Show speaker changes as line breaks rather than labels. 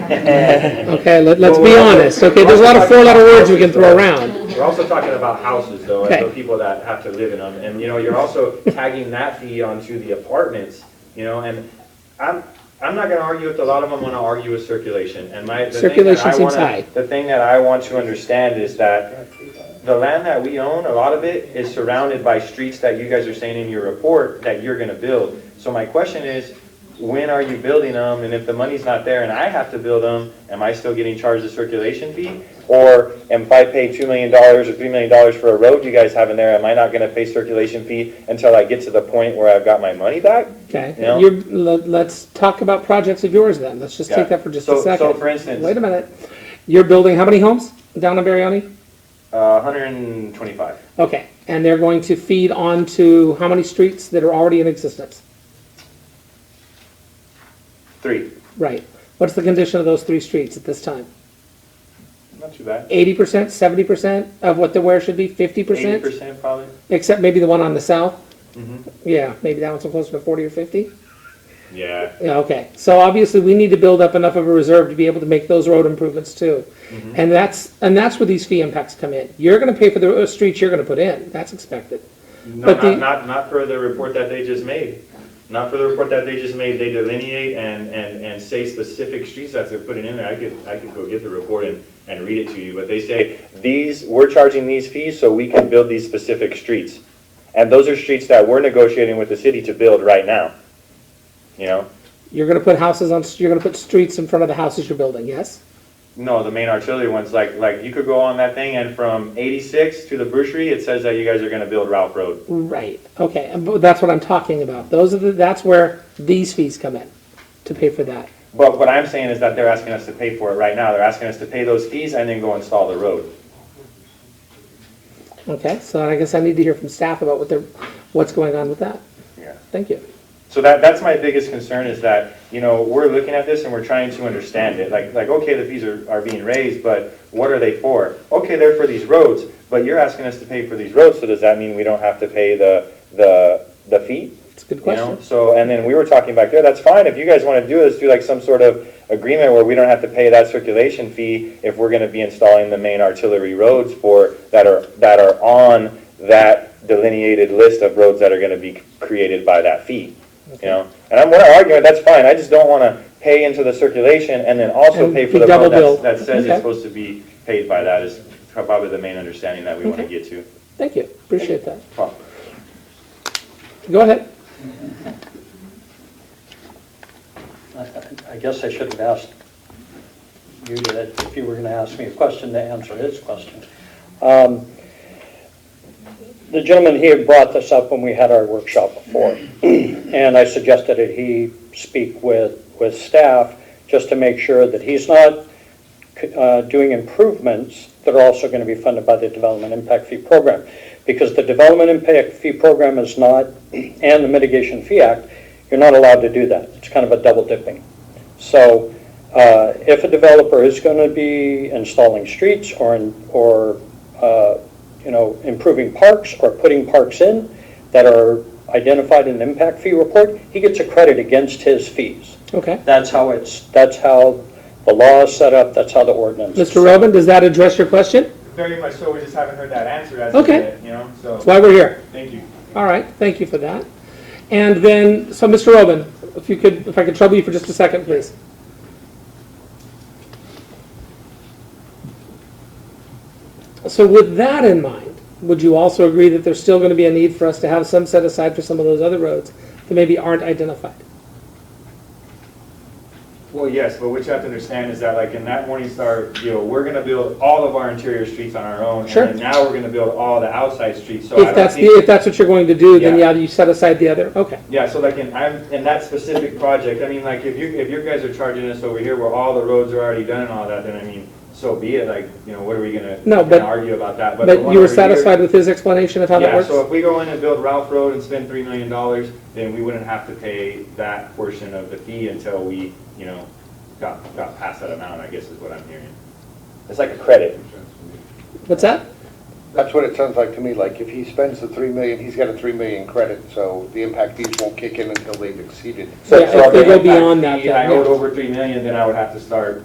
Okay, let, let's be honest, okay, there's a lot of four-letter words we can throw around.
We're also talking about houses though, and the
Okay.
people that have to live in them, and you know, you're also tagging that fee onto the apartments, you know, and I'm, I'm not gonna argue with, a lot of them wanna argue with circulation, and my, the thing that
Circulation
I
seems
wanna,
high.
the thing that I want to understand is that the land that we own, a lot of it is surrounded by streets that you guys are saying in your report that you're gonna build. So my question is, when are you building them, and if the money's not there and I have to build them, am I still getting charged a circulation fee? Or if I pay two million dollars or three million dollars for a road you guys have in there, am I not gonna pay circulation fee until I get to the point where I've got my money back?
Okay,
Yeah.
you're, let, let's talk about projects of yours then, let's just
Yeah.
take that for just
So-
a
so
second.
for instance-
Wait a minute, you're building how many homes down in Barione?
Uh, hundred and twenty-five.
Okay, and they're going to feed onto how many streets that are already in existence?
Three.
Right, what's the condition of those three streets at this time?
Not too bad.
Eighty percent, seventy percent of what the where should be, fifty
Eighty
percent?
percent Mm-hmm. probably.
Except maybe the one on the south? Yeah, maybe that one's closer to forty or fifty?
Yeah.
Yeah, okay, so obviously, we need to build up enough of a reserve to be able to make those road improvements too.
Mm-hmm.
And that's, and that's where these fee impacts come in. You're gonna pay for the uh, streets you're gonna put in, that's expected.
No,
But the-
not, not, not for the report that they just made. Not for the report that they just made, they delineate and, and, and say specific streets that they're putting in there. I could, I could go get the report and, and read it to you, but they say, these, we're charging these fees so we can build these specific streets. And those are streets that we're negotiating with the city to build right now. You know?
You're gonna put houses on, you're gonna put streets in front of the houses you're building, yes?
No, the main artillery ones, like, like you could go on that thing and from eighty-six to the brewery, it says that you guys are gonna build Ralph Road.
Right, okay, and bu- that's what I'm talking about. Those are the, that's where these fees come in, to pay for that.
But what I'm saying is that they're asking us to pay for it right now. They're asking us to pay those fees and then go install the road.
Okay, so I guess I need to hear from staff about what they're, what's going on with that.
Yeah.
Thank you.
So that, that's my biggest concern is that, you know, we're looking at this and we're trying to understand it. Like, like, okay, the fees are, are being raised, but what are they for? Okay, they're for these roads, but you're asking us to pay for these roads, so does that mean we don't have to pay the, the, the fee?
It's a good
You know,
question.
so, and then we were talking back there, that's fine, if you guys wanna do this, do like some sort of agreement where we don't have to pay that circulation fee if we're gonna be installing the main artillery roads for, that are, that are on that delineated list of roads that are gonna be created by that fee, you know? And I'm, we're not arguing, that's fine, I just don't wanna pay into the circulation and then also
And
pay
be
for the
double
road
billed.
that's- that says
Okay.
it's supposed to be paid by that is probably the main understanding that we wanna
Okay.
get to.
Thank you, appreciate that.
Well,
Go ahead.
I guess I should have asked you that if you were going to ask me a question, to answer his question. Um, The gentleman here brought this up when we had our workshop before, and I suggested that he speak with, with staff just to make sure that he's not uh, doing improvements that are also going to be funded by the Development Impact Fee Program. Because the Development Impact Fee Program is not, and the Mitigation Fee Act, you're not allowed to do that. It's kind of a double dipping. So uh, if a developer is going to be installing streets or, in- or, uh, you know, improving parks or putting parks in that are identified in the impact fee report, he gets a credit against his fees.
Okay.
That's how it's, that's how the law is set up, that's how the ordinance is
Mr.
set up.
Robin, does that address your question?
Very much so, we just haven't heard that answer as
of Okay. yet,
you know, so,
That's why we're here.
thank you.
All right, thank you for that. And then, so Mr. Robin, if you could, if I could trouble you for just a second, please. So with that in mind, would you also agree that there's still going to be a need for us to have some set aside for some of those other roads that maybe aren't identified?
Well, yes, but what you have to understand is that like in that Morningstar deal, we're gonna build all of our interior streets on our own.
Sure.
And then now we're gonna build all the outside streets, so Oh, I
If
don't
that's, the-
think-
if that's what you're going to do, then yeah,
Yeah.
you set aside the other, okay.
Yeah, so like in, I'm, in that specific project, I mean, like if you, if you guys are charging us over here where all the roads are already done and all that, then I mean, so be it, like, you know, what are we gonna?
No,
gonna
but-
Argue about that, but. the
But
one
you were
over here-
satisfied with his explanation of how that
Yeah,
works?
so if we go in and build Ralph Road and spend three million dollars, then we wouldn't have to pay that portion of the fee until we, you know, got, got past that amount, I guess is what I'm hearing. It's like a credit.
What's that?
That's what it sounds like to me, like if he spends the three million, he's got a three million credit, so the impact fees won't kick in until they've exceeded.
Yeah, if they go
if I-
beyond that,
if I
then, yeah.
owed over three million, then I would have to start